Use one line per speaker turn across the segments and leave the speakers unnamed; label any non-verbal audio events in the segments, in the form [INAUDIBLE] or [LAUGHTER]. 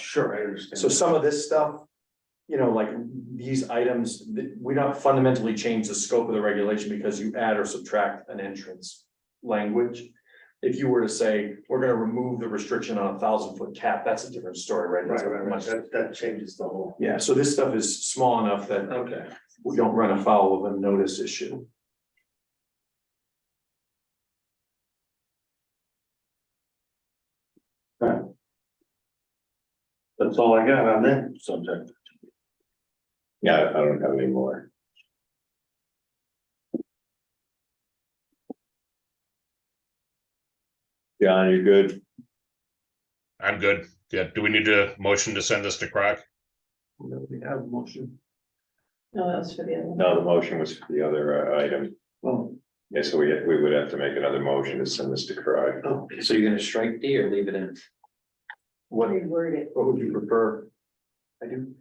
Sure, I understand.
So some of this stuff, you know, like these items, th- we don't fundamentally change the scope of the regulation because you add or subtract an entrance language. If you were to say, we're gonna remove the restriction on a thousand foot cap, that's a different story, right? That's
Right, right, right,
much-
that, that changes the whole.
Yeah, so this stuff is small enough that
Okay.
we don't run afoul of a notice issue.
That's all I got on that subject.
Yeah, I don't have any more. John, you're good?
I'm good. Yeah, do we need to motion to send this to Croc?
We have motion.
No, that was for the other one.
No, the motion was for the other uh, item.
Well,
Yeah, so we, we would have to make another motion to send this to Cry.
okay,
So you're gonna strike D or leave it in?
What,
Reword it.
what would you prefer? I do.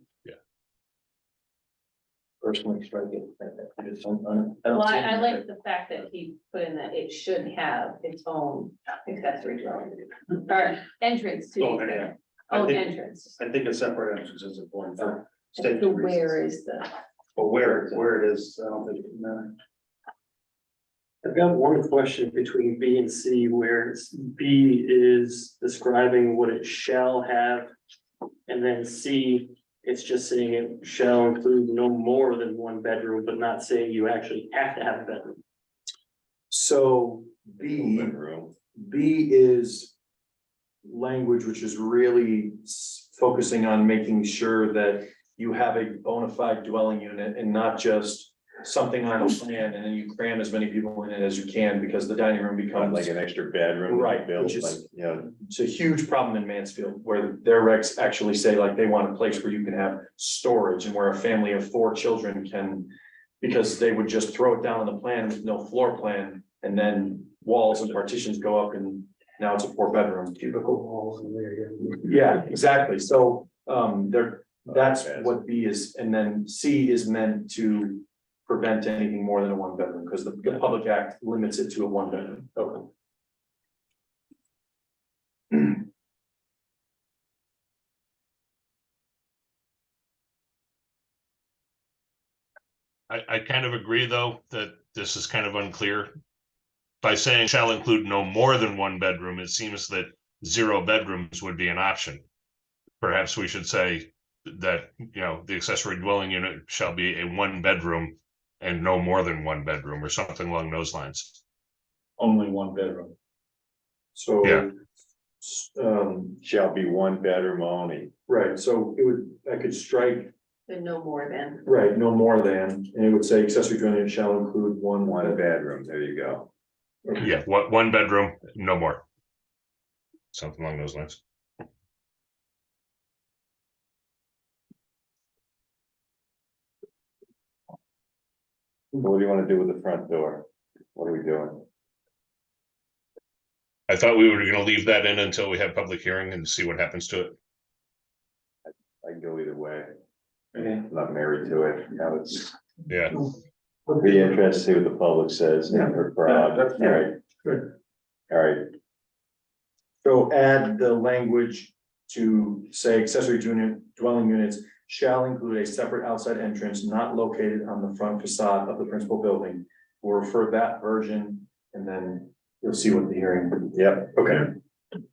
Personally strike it. I just don't- I don't- don't
Well,
see
I,
it.
I like the fact that he put in that it should have its own accessory dwelling, or entrance to. the
Oh, yeah.
accessory-
I
Own
think-
entrance.
I think a separate entrance is important for safety
So
reasons,
where is the,
but where, where it is, I don't think it matters.
I've got one question between B and C where it's- B is describing what it shall have. And then C, it's just saying it shall include no more than one bedroom, but not saying you actually have to have a bedroom.
So B.
Open room.
B is language which is really s- focusing on making sure that you have a bona fide dwelling unit and not just something on a plan and then you cram as many people in it as you can because the dining room
Kind of
becomes
Like an extra bedroom. that
Right,
built,
which is-
like, You know,
it's a huge problem in Mansfield where their regs actually say like they want a place where you can have storage and where a family of four children can because they would just throw it down on the plan with no floor plan and then walls and partitions go up and now it's a four bedroom.
Cubicle walls in there.
Yeah, exactly. So um there,
uh,
that's
Okay.
what B is, and then C is meant to prevent anything more than a one bedroom, because the the Public Act limits it to a one bedroom. [CLEARS THROAT]
Okay.
I, I kind of agree, though, that this is kind of unclear. By saying shall include no more than one bedroom, it seems that zero bedrooms would be an option. Perhaps we should say that, you know, the accessory dwelling unit shall be a one bedroom and no more than one bedroom or something along those lines.
Only one bedroom.
So.
Yeah.
s- Um,
Shall be one bedroom only.
right, so it would, I could strike,
the no more than,
right, no more than, and it would say accessory dwelling unit shall include one.
One bedroom, there you go.
Yeah, one, one bedroom, no more. Something along those lines.
Mm-hmm.
What do you want to do with the front door? What are we doing?
I thought we were gonna leave that in until we have public hearing and see what happens to it.
I can go either way.
Okay.
I'm Not married to it. Now it's
Yeah,
be interesting to see what the public says.
Yeah.
and her crowd.
Yeah, that's-
All right.
Good.
All right,
So add the language to say accessory dwelling dwelling units shall include a separate outside entrance not located on the front facade of the principal building. We'll refer that version and then you'll see what the hearing.
Yep.
Okay.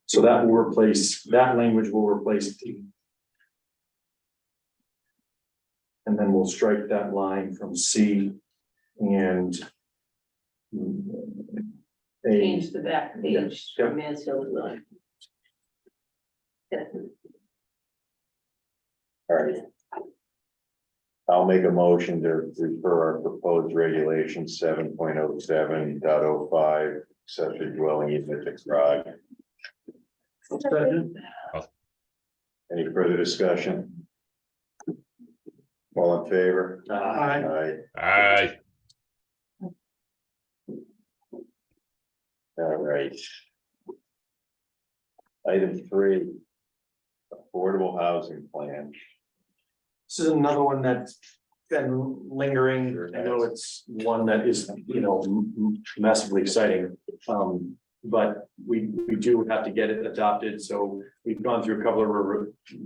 So that will replace, that language will replace D. And then we'll strike that line from C and mm, A.
change the back page
Yeah, yeah.
to Mansfield dwelling. Yeah.
all right. I'll make a motion to refer our proposed regulation seven point oh seven dot oh five, accessory dwelling unit to CROG. Any further discussion? All in favor?
Uh,
Aye.
Aye.
I.
All right. Item three. Affordable housing plan.
This is another one that's been lingering, I know it's one that is, you know, m- m- massively exciting. Um, but we, we do have to get it adopted, so we've gone through a couple of re-